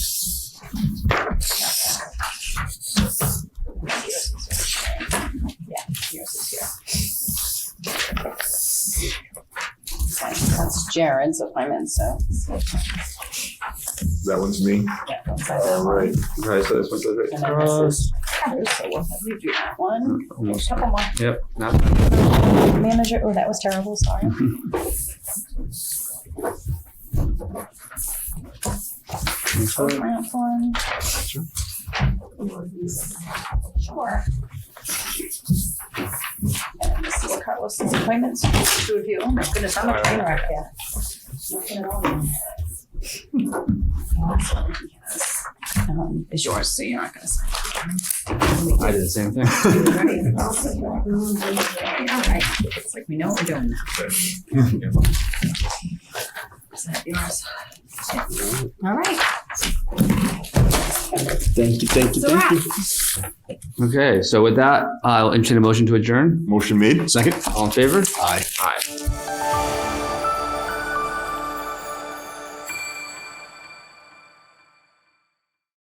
Jared's appointment, so. That one's me. yeah, that's All that. right. All right, so this one's right. And then this is hers, so we'll have you do that one. Almost. Couple more. Yep. Not Manager, oh, that was terrible, sorry. this one. Grant one. Sure. Sure. And this is Carlos's appointments, two of you. Oh my goodness, I'm a train wreck here. Nothing at all. Um, Is yours, so you're not gonna sign. I did the same thing. Ready? All right. It's like we know what we're doing now. Is that yours? All right. Thank you, thank It's a wrap. Okay, so with that, I'll entertain a motion to adjourn. Motion made. Second. All in favor? Aye. Aye.